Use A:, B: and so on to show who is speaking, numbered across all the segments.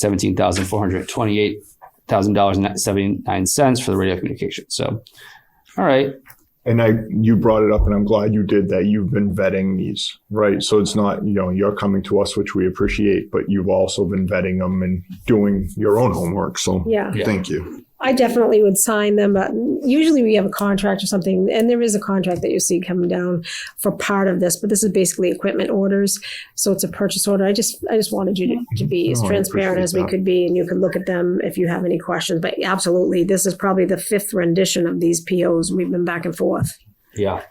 A: seventeen thousand four hundred twenty-eight thousand dollars and seventy-nine cents for the radio communication. So, all right,
B: And I, you brought it up, and I'm glad you did that. You've been vetting these, right? So it's not, you know, you're coming to us, which we appreciate, but you've also been vetting them and doing your own homework. So
C: Yeah,
A: Yeah.
B: thank you.
C: I definitely would sign them, but usually we have a contract or something, and there is a contract that you see coming down for part of this, but this is basically equipment orders. So it's a purchase order. I just, I just wanted you to, to be as
B: No, Oh, I
C: transparent as we
B: appreciate that.
C: could be, and you could look at them if you have any questions. But absolutely, this is probably the fifth rendition of these POs. We've been back and forth.
A: yeah,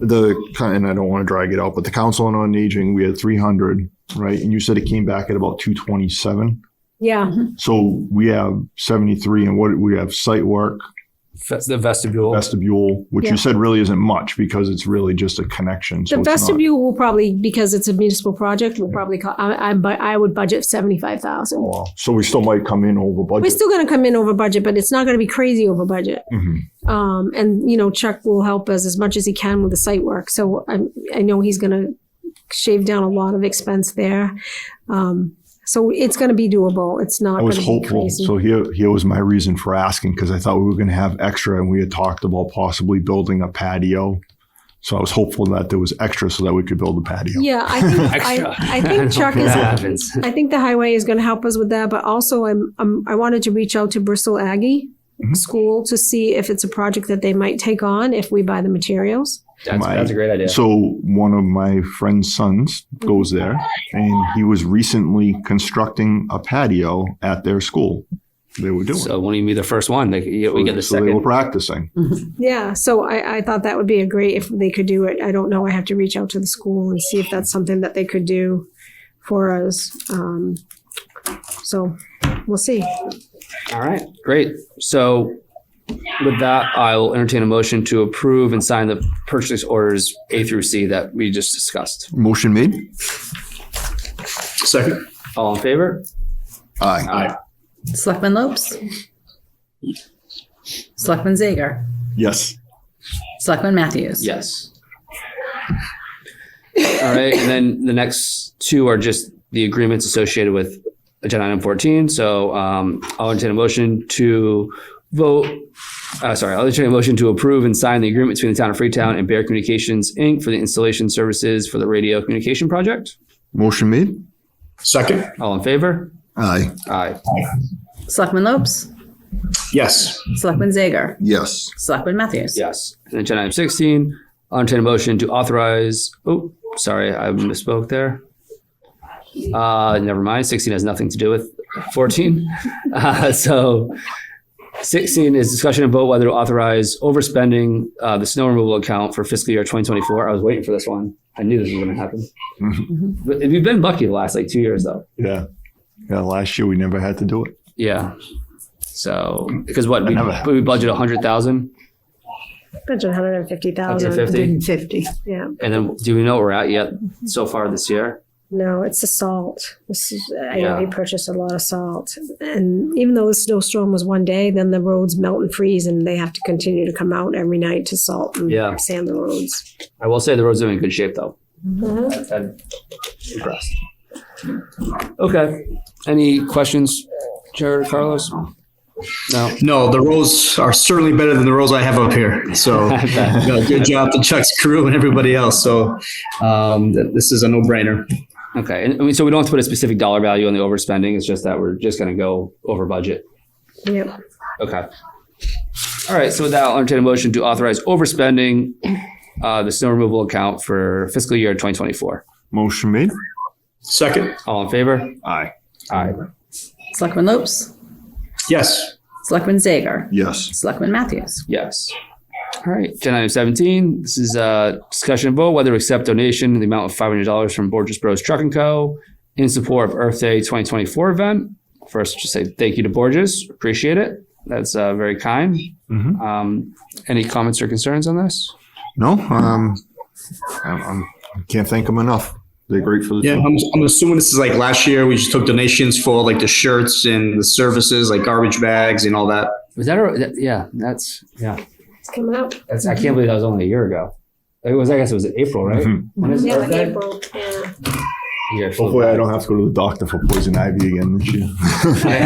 B: The, and I don't want to drag it out, but the Council on Aging, we had 300, right? And you said it came back at about 227.
C: Yeah,
B: So we have 73, and what we have site work,
A: That's the vestibule.
B: vestibule, which
C: Yeah.
B: you said really isn't much because it's really just a connection. So
C: the
B: it's not-
C: vestibule will probably, because it's a municipal project, will probably, co- I, I, bu- I would budget seventy-five thousand.
B: Oh, wow. So we still might come in over budget.
C: We're still gonna come in over budget, but it's not gonna be crazy over budget.
B: Mhm.
C: Um, and you know, Chuck will help us as much as he can with the site work. So I, I know he's going to shave down a lot of expense there. Um, so it's going to be doable. It's not.
B: I was
C: gonna be
B: hopeful.
C: crazy.
B: So here, here was my reason for asking because I thought we were going to have extra, and we had talked about possibly building a patio. So I was hopeful that there was extra so that we could build a patio.
C: yeah, I think
A: Extra.
C: I, I think Chuck
A: That
C: is.
A: happens.
C: I think the highway is going to help us with that, but also I'm, i I wanted to reach out to Bristol Aggie
B: Mhm.
C: School to see if it's a project that they might take on if we buy the materials.
A: That's,
B: My-
A: that's a great idea.
B: So one of my friend's sons goes there, and he was recently constructing a patio at their school. They were doing.
A: So when you be the first one, they, you- we get the
B: so they were
A: second.
B: practicing.
C: Yeah, so I, I thought that would be a great if they could do it. I don't know. I have to reach out to the school and see if that's something that they could do for us. Um, so we'll see.
A: All right, great. So with that, I'll entertain a motion to approve and sign the purchase orders A through C that we just discussed.
B: Motion made.
A: Second. All in favor?
B: Aye.
D: Selectman Lopes. Selectman Zager.
B: Yes.
D: Selectman Matthews.
A: Yes. All right, and then the next two are just the agreements associated with agenda item fourteen. So um, I'll entertain a motion to vote. Uh, sorry, I'll entertain a motion to approve and sign the agreement between the town of Freetown and Bear Communications Inc. for the installation services for the radio communication project.
B: Motion made.
E: Second.
A: All in favor?
B: Aye.
A: Aye.
D: Selectman Lopes.
E: Yes.
D: Selectman Zager.
B: Yes.
D: Selectman Matthews.
A: Yes. And agenda item sixteen, I'll entertain a motion to authorize. Oh, sorry, I misspoke there. Uh, never mind. Sixteen has nothing to do with fourteen. Uh, so sixteen is discussion about whether to authorize overspending uh, the snow removal account for fiscal year twenty twenty four. I was waiting for this one. I knew this was going to happen.
B: Mm-hmm.
A: But we've been lucky the last like two years though.
B: Yeah. Yeah. Last year we never had to do it.
A: Yeah. So because what we,
B: That never happens.
A: we budget a hundred thousand,
C: Budget one hundred and fifty
A: hundred
C: thousand.
A: fifty.
F: 150.
C: Yeah,
A: And then do we know where we're at yet so far this year?
C: no, it's the salt. This is, I
A: Yeah.
C: know we purchased a lot of salt, and even though the snowstorm was one day, then the roads melt and freeze, and they have to continue to come out every night to salt and
A: Yeah.
C: sand the roads.
A: I will say the roads are in good shape though. I'm impressed. Okay. Any questions, Jared or Carlos? No.
E: No, the rows are certainly better than the rows I have up here. So, no, good job to Chuck's crew and everybody else. So, um, th- this is a no brainer.
A: Okay. And I mean, so we don't have to put a specific dollar value on the overspending. It's just that we're just going to go over budget.
C: Yep.
A: Okay. All right. So with that, I'll entertain a motion to authorize overspending uh, the snow removal account for fiscal year 2024.
B: Motion made.
E: Second.
A: All in favor?
B: Aye.
A: Aye.
D: Selectman Lopes.
E: Yes.
D: Selectman Zager.
B: Yes.
D: Selectman Matthews.
A: Yes. All right, agenda item seventeen, this is a discussion about whether to accept donation in the amount of five hundred dollars from Borges Bros Truck and Co. in support of Earth Day twenty twenty four event. First, just say thank you to Borges, appreciate it. That's uh, very kind.
B: Mhm.
A: Um, any comments or concerns on this?
B: No, um, I'm, I'm, I can't thank them enough. They're great for the
E: Yeah.
B: team.
E: I'm, I'm assuming this is like last year. We just took donations for like the shirts and the services, like garbage bags and all that.
A: Was that, a- that- yeah, that's, yeah,
C: It's coming up.
A: that's, I can't believe that was only a year ago. It was, I guess it was April, right?
B: Mhm.
A: When is
C: Yeah,
A: Earth
C: in
A: Day?
C: April. Yeah.
A: here.
B: Hopefully, I don't have to go to the doctor for poison ivy again this year.